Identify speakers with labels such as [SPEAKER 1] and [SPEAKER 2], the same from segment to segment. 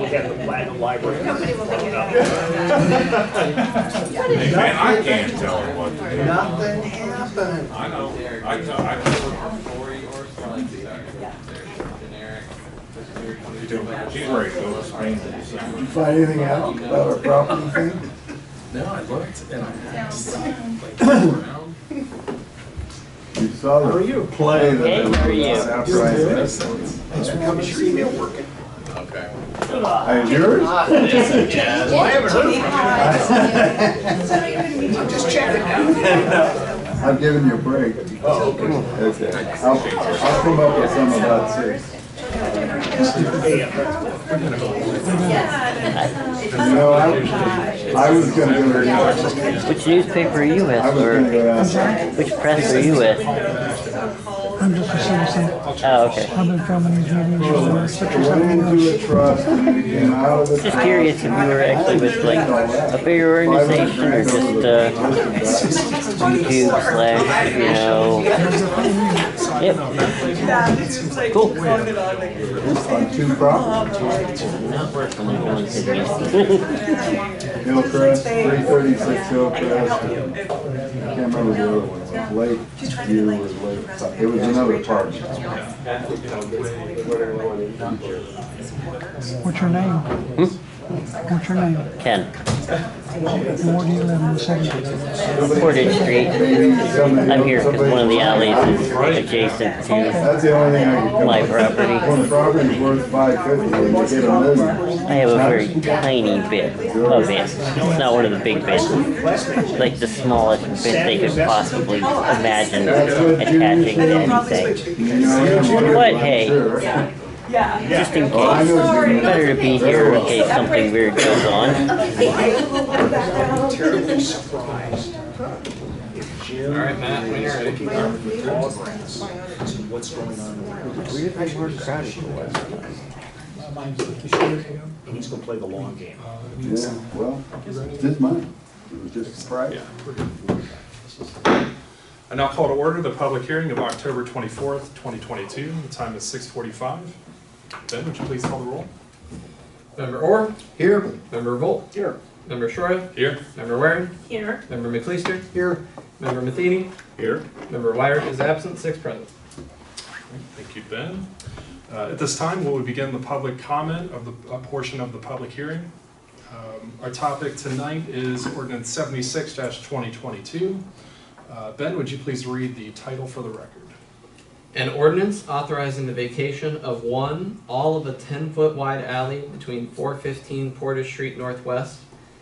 [SPEAKER 1] We have the platinum library.
[SPEAKER 2] Nobody will make it up.
[SPEAKER 3] Man, I can't tell her what to do.
[SPEAKER 4] Nothing happened.
[SPEAKER 3] I know, I tell, I tell her, you do, she's ready to go to Spain in December.
[SPEAKER 4] Did you find anything out about our property thing?
[SPEAKER 5] No, I looked and I asked. like, around.
[SPEAKER 6] You saw the. Play that.
[SPEAKER 7] Hey, how are
[SPEAKER 6] was
[SPEAKER 5] Makes
[SPEAKER 7] you?
[SPEAKER 6] Outstanding.
[SPEAKER 5] sense.
[SPEAKER 4] Thanks for coming, your email working.
[SPEAKER 5] Okay.
[SPEAKER 6] And
[SPEAKER 2] I
[SPEAKER 6] yours?
[SPEAKER 2] haven't heard
[SPEAKER 4] Just checking
[SPEAKER 6] I'm giving you a break. Oh, okay. I'll, I'll come up with some about six. You know, I, I was gonna go to,
[SPEAKER 7] Which newspaper are you with,
[SPEAKER 6] I was gonna
[SPEAKER 7] or
[SPEAKER 6] go outside.
[SPEAKER 7] which press are you with?
[SPEAKER 8] I'm just a citizen.
[SPEAKER 7] Oh, okay.
[SPEAKER 8] I've been coming these meetings for six or
[SPEAKER 6] Went
[SPEAKER 8] seven
[SPEAKER 6] into a
[SPEAKER 8] years.
[SPEAKER 6] trust and came out of the.
[SPEAKER 7] Just
[SPEAKER 6] trust.
[SPEAKER 7] curious if you were actually with like a bigger organization or just uh, two slash, you know. Yep. Cool.
[SPEAKER 6] On two properties. Hillcrest, three thirty-six Hillcrest. and- I can't remember the other one, it was Lake View or Lake, it was another park.
[SPEAKER 8] What's your name? What's your name?
[SPEAKER 7] Ken,
[SPEAKER 8] And where do you live in the city?
[SPEAKER 7] Portage Street.
[SPEAKER 6] Maybe somebody-
[SPEAKER 7] I'm here because one of the alleys is adjacent to.
[SPEAKER 6] That's the only thing I could. come
[SPEAKER 7] My
[SPEAKER 6] up with.
[SPEAKER 7] property.
[SPEAKER 6] When the property's worth five fifty, they can get a million.
[SPEAKER 7] I have a very tiny bit of it. It's not one of the big bits. Like the smallest bit they could possibly imagine attaching to anything.
[SPEAKER 6] You know, I'm sure-
[SPEAKER 7] What?
[SPEAKER 6] I'm
[SPEAKER 7] Hey.
[SPEAKER 6] sure.
[SPEAKER 7] Just in
[SPEAKER 6] Oh, I know
[SPEAKER 7] case.
[SPEAKER 6] what you mean.
[SPEAKER 7] Better to be here in case something weird goes on.
[SPEAKER 4] Terribly surprised.
[SPEAKER 1] All right, Matt, when you're ready.
[SPEAKER 4] What's going on?
[SPEAKER 1] And he's gonna play the long game.
[SPEAKER 6] Yeah, well, it's just mine, it was just a surprise.
[SPEAKER 9] I now call to order the public hearing of October 24th, 2022. The time is 6:45. Ben, would you please call the roll?
[SPEAKER 5] Member Orr? Here. Member Volt?
[SPEAKER 4] Here.
[SPEAKER 5] Member Shroya?
[SPEAKER 9] Here.
[SPEAKER 5] Member Waring?
[SPEAKER 2] Here.
[SPEAKER 5] Member McLeister?
[SPEAKER 4] Here.
[SPEAKER 5] Member Matheny?
[SPEAKER 9] Here.
[SPEAKER 5] Member Wire is absent, six present.
[SPEAKER 9] Thank you, Ben. Uh, At this time, we will begin the public comment of the, a portion of the public hearing. Um, Our topic tonight is ordinance 76-2022. Uh, Ben, would you please read the title for the record?
[SPEAKER 5] An ordinance authorizing the vacation of one, all of a ten-foot wide alley between four fifteen Portage Street Northwest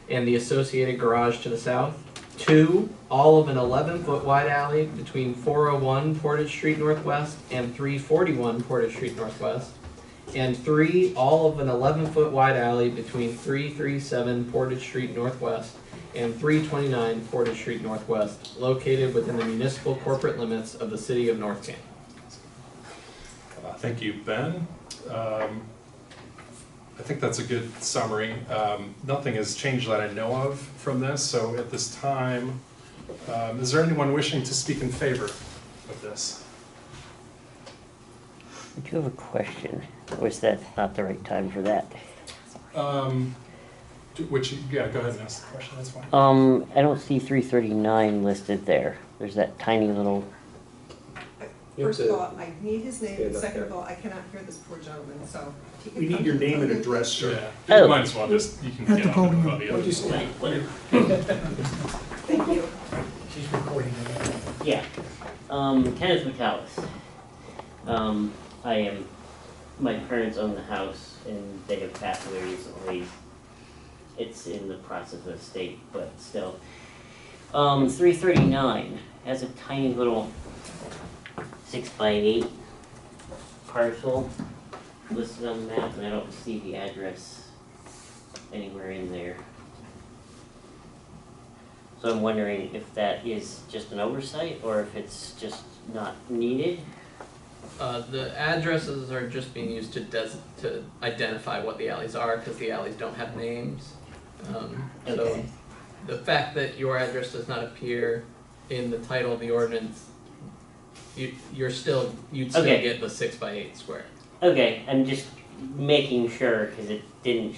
[SPEAKER 5] and the associated garage to the south. Two, all of an eleven-foot wide alley between four oh one Portage Street Northwest and three forty-one Portage Street Northwest. And three, all of an eleven-foot wide alley between three three seven Portage Street Northwest and three twenty-nine Portage Street Northwest, located within the municipal corporate limits of the city of North Canton.
[SPEAKER 9] Uh, Thank you, Ben. Um, I think that's a good summary. Um, Nothing has changed that I know of from this, so at this time, um, is there anyone wishing to speak in favor of this?
[SPEAKER 7] I do have a question. Was that not the right time for that?
[SPEAKER 9] Um, do- Which, yeah, go ahead and ask the question, that's fine.
[SPEAKER 7] Um, I don't see three thirty-nine listed there. There's that tiny little,
[SPEAKER 10] First of all, I need his name, and second of all, I cannot hear this poor gentleman, so. if he can
[SPEAKER 1] We need
[SPEAKER 10] come
[SPEAKER 1] your
[SPEAKER 10] to
[SPEAKER 1] name and
[SPEAKER 10] the-
[SPEAKER 1] address, sir.
[SPEAKER 9] Yeah,
[SPEAKER 7] Oh.
[SPEAKER 9] you might as well just, you can get
[SPEAKER 8] At the
[SPEAKER 9] up and
[SPEAKER 8] podium.
[SPEAKER 9] go the other side.
[SPEAKER 10] Thank you.
[SPEAKER 4] She's recording.
[SPEAKER 7] yeah, um, Kenneth McAllis. Um, I am, my parents own the house and they have passed away recently. It's in the process of estate, but still. Um, three thirty-nine has a tiny little six by eight parcel listed on the map and I don't see the address anywhere in there. So I'm wondering if that is just an oversight or if it's just not needed.
[SPEAKER 5] Uh, the addresses are just being used to des- to identify what the alleys are because the alleys don't have names. Um, so
[SPEAKER 7] Okay.
[SPEAKER 5] the fact that your address does not appear in the title of the ordinance, you, you're still, you'd still
[SPEAKER 7] Okay.
[SPEAKER 5] get the six by eight square.
[SPEAKER 7] Okay, I'm just making sure, because it didn't